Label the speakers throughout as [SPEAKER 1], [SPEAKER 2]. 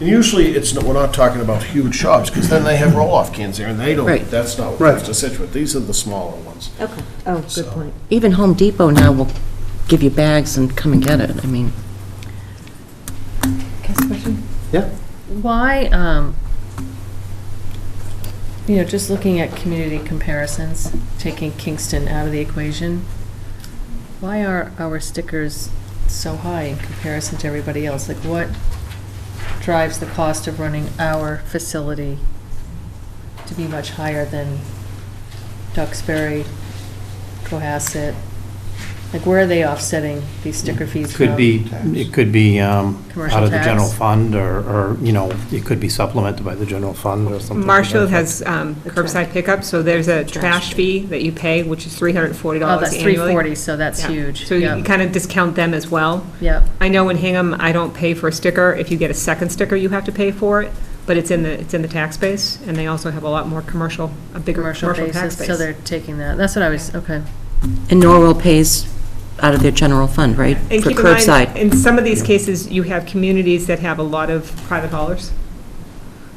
[SPEAKER 1] And usually, it's, not- we're not talking about huge shops, because then they have roll-off cans there, and they don't,
[SPEAKER 2] Right.
[SPEAKER 1] that's not what comes
[SPEAKER 3] Right.
[SPEAKER 1] to Situate. These are the smaller ones.
[SPEAKER 4] Okay.
[SPEAKER 2] Oh,
[SPEAKER 1] So-
[SPEAKER 2] good point. Even Home Depot now will give you bags and come and get it, I mean.
[SPEAKER 5] Can I ask a question?
[SPEAKER 3] Yeah.
[SPEAKER 5] Why, um, you know, just looking at community comparisons, taking Kingston out of the equation, why are our stickers so high in comparison to everybody else? Like, what drives the cost of running our facility to be much higher than Duxbury, Cohasset? Like, where are they offsetting these sticker fees from?
[SPEAKER 6] Could be, it could be um,
[SPEAKER 5] Commercial
[SPEAKER 6] out of the
[SPEAKER 5] tax.
[SPEAKER 6] general fund, or, or, you know, it could be supplemented by the general fund or something. to that
[SPEAKER 7] Marshall
[SPEAKER 6] effect.
[SPEAKER 7] has um, curbside pickup, so there's a trash fee that you pay, which is $340
[SPEAKER 5] Oh, that's
[SPEAKER 7] annually.
[SPEAKER 5] 340, so that's
[SPEAKER 7] Yeah.
[SPEAKER 5] huge.
[SPEAKER 7] So you
[SPEAKER 5] Yep.
[SPEAKER 7] kind of discount them as well.
[SPEAKER 5] Yep.
[SPEAKER 7] I know in Hingham, I don't pay for a sticker. If you get a second sticker, you have to pay for it, but it's in the, it's in the tax base, and they also have a lot more commercial, a bigger
[SPEAKER 5] commercial
[SPEAKER 7] commercial tax
[SPEAKER 5] basis,
[SPEAKER 7] base.
[SPEAKER 5] so they're taking that. That's what I was, okay.
[SPEAKER 2] And Norwell pays out of their general fund, right?
[SPEAKER 7] And
[SPEAKER 2] For
[SPEAKER 7] keep in mind,
[SPEAKER 2] curbside.
[SPEAKER 7] in some of these cases, you have communities that have a lot of private haulers,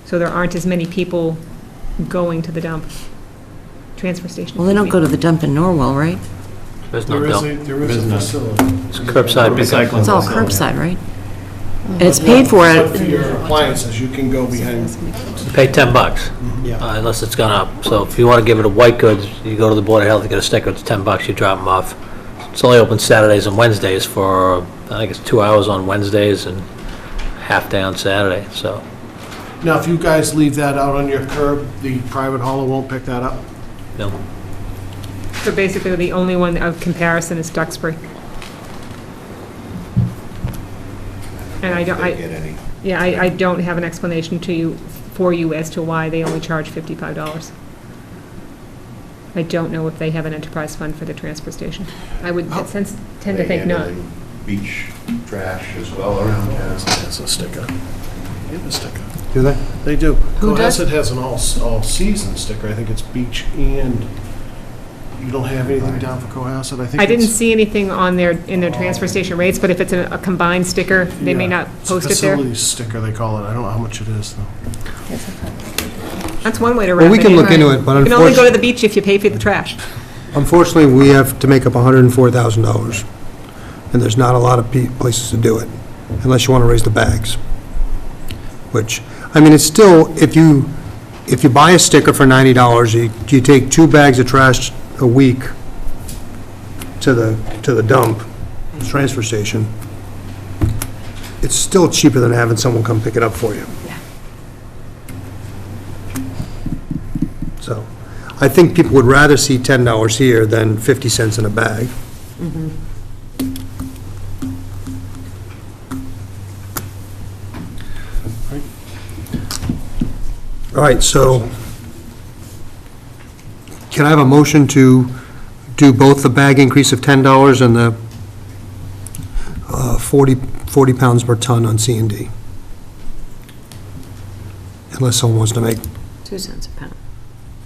[SPEAKER 7] so there aren't as many people going to the dump, transfer station.
[SPEAKER 2] Well, they don't
[SPEAKER 7] excuse me.
[SPEAKER 2] go to the dump in Norwell, right?
[SPEAKER 8] There's no
[SPEAKER 1] There is a,
[SPEAKER 8] dump.
[SPEAKER 1] there is a
[SPEAKER 6] Business.
[SPEAKER 1] facility.
[SPEAKER 8] Curbside pickup.
[SPEAKER 6] Recycling.
[SPEAKER 2] It's all
[SPEAKER 6] Yeah.
[SPEAKER 2] curbside, right?
[SPEAKER 4] Mm-hmm.
[SPEAKER 2] And it's paid for
[SPEAKER 1] Except for
[SPEAKER 2] it.
[SPEAKER 1] your appliances, you can go behind
[SPEAKER 8] You Pay 10 bucks, uh, unless it's gone up. So if you want to give it to white goods, you go to the Board of Health, you get a sticker, it's 10 bucks, you drop them off. It's only open Saturdays and Wednesdays for, I think it's two hours on Wednesdays and half day on Saturday, so.
[SPEAKER 1] Now, if you guys leave that out on your curb, the private hauler won't pick that up?
[SPEAKER 8] you know.
[SPEAKER 7] So basically, the only one of comparison is Duxbury. And I don't, I,
[SPEAKER 1] any.
[SPEAKER 7] yeah, I, I don't have an explanation to you, for you as to why they only charge fifty-five dollars. I don't know if they have an enterprise fund for the transfer station. I would
[SPEAKER 1] Oh.
[SPEAKER 7] sense, tend to think not.
[SPEAKER 9] Beach trash as well around town.
[SPEAKER 1] That's a sticker. They have a sticker.
[SPEAKER 3] Do they?
[SPEAKER 1] They do.
[SPEAKER 2] Who does?
[SPEAKER 1] Cohasset has an all, all-season sticker. I think it's beach and, you don't have anything down for Cohasset? I think
[SPEAKER 7] I didn't
[SPEAKER 1] it's-
[SPEAKER 7] see anything on their, in their transfer station rates, but if it's a a combined sticker, they may
[SPEAKER 1] Oh. yeah,
[SPEAKER 7] not
[SPEAKER 1] it's a
[SPEAKER 7] post it there.
[SPEAKER 1] Facilities sticker, they call it. I don't know how much it is, though.
[SPEAKER 7] That's one way to wrap it
[SPEAKER 3] Well, we can
[SPEAKER 7] in.
[SPEAKER 3] look into it, but
[SPEAKER 7] You can only go to
[SPEAKER 3] unfortunately,
[SPEAKER 7] the beach if you pay for the trash.
[SPEAKER 3] unfortunately, we have to make up $104,000, and there's not a lot of pe- places to do it, unless you want to raise the bags, which, I mean, it's still, if you, if you buy a sticker for $90, you, you take two bags of trash a week to the, to the dump, transfer station, it's still cheaper than having someone come pick it up for you. So, I think people would rather see ten dollars here than fifty cents in a bag. All right, so can I have a motion to do both the bag increase of ten dollars and the uh, 40 40 pounds per ton on C and D? Unless someone wants to make
[SPEAKER 4] Two cents a pound,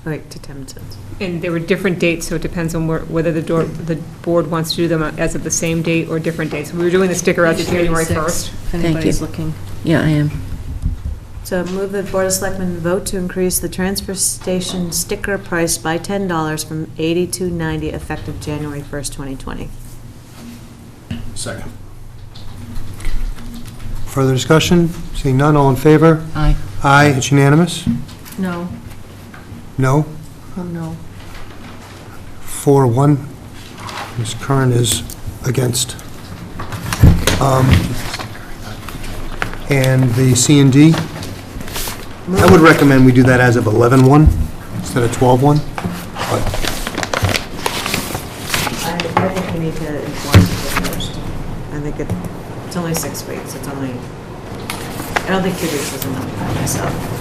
[SPEAKER 4] right, to 10 cents.
[SPEAKER 7] And there were different dates, so it depends on where- whether the door, the board wants to do them as of the same date or different dates. We were doing the sticker out to January 1st.
[SPEAKER 5] If anybody's looking.
[SPEAKER 2] Yeah, I am.
[SPEAKER 4] So move the Board of Selectmen vote to increase the transfer station sticker price by $10 from 80 to 90 effective January 1st, 2020.
[SPEAKER 1] Second.
[SPEAKER 3] Further discussion? Seeing none, all in favor?
[SPEAKER 2] Aye.
[SPEAKER 3] Aye, it's unanimous?
[SPEAKER 5] No,
[SPEAKER 3] No?
[SPEAKER 5] oh, no.
[SPEAKER 3] Four, one. Ms. Curran is against. Um, And the C and D? I would recommend we do that as of 11-1 instead of 12-1. but-
[SPEAKER 4] I I think we need to enforce it first. I think it- it's only six weeks, it's only, I don't think two weeks is enough by myself.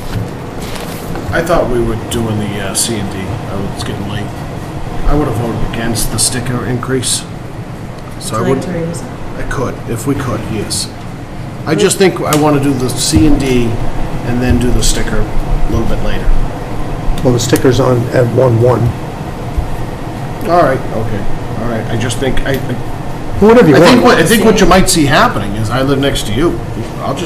[SPEAKER 1] I thought we were doing the uh, C and D. I was getting late. I would have voted against the sticker increase. So I would,
[SPEAKER 4] Like three is-
[SPEAKER 1] I could, if we could, yes. I just think I want to do the C and D and then do the sticker a little bit later.
[SPEAKER 3] Well, the sticker's on at 1-1.
[SPEAKER 1] All right, okay, all right. I just think, I, I
[SPEAKER 3] Whatever you
[SPEAKER 1] I
[SPEAKER 3] want.
[SPEAKER 1] think, what I think what you might see happening is I live next to you. I'll just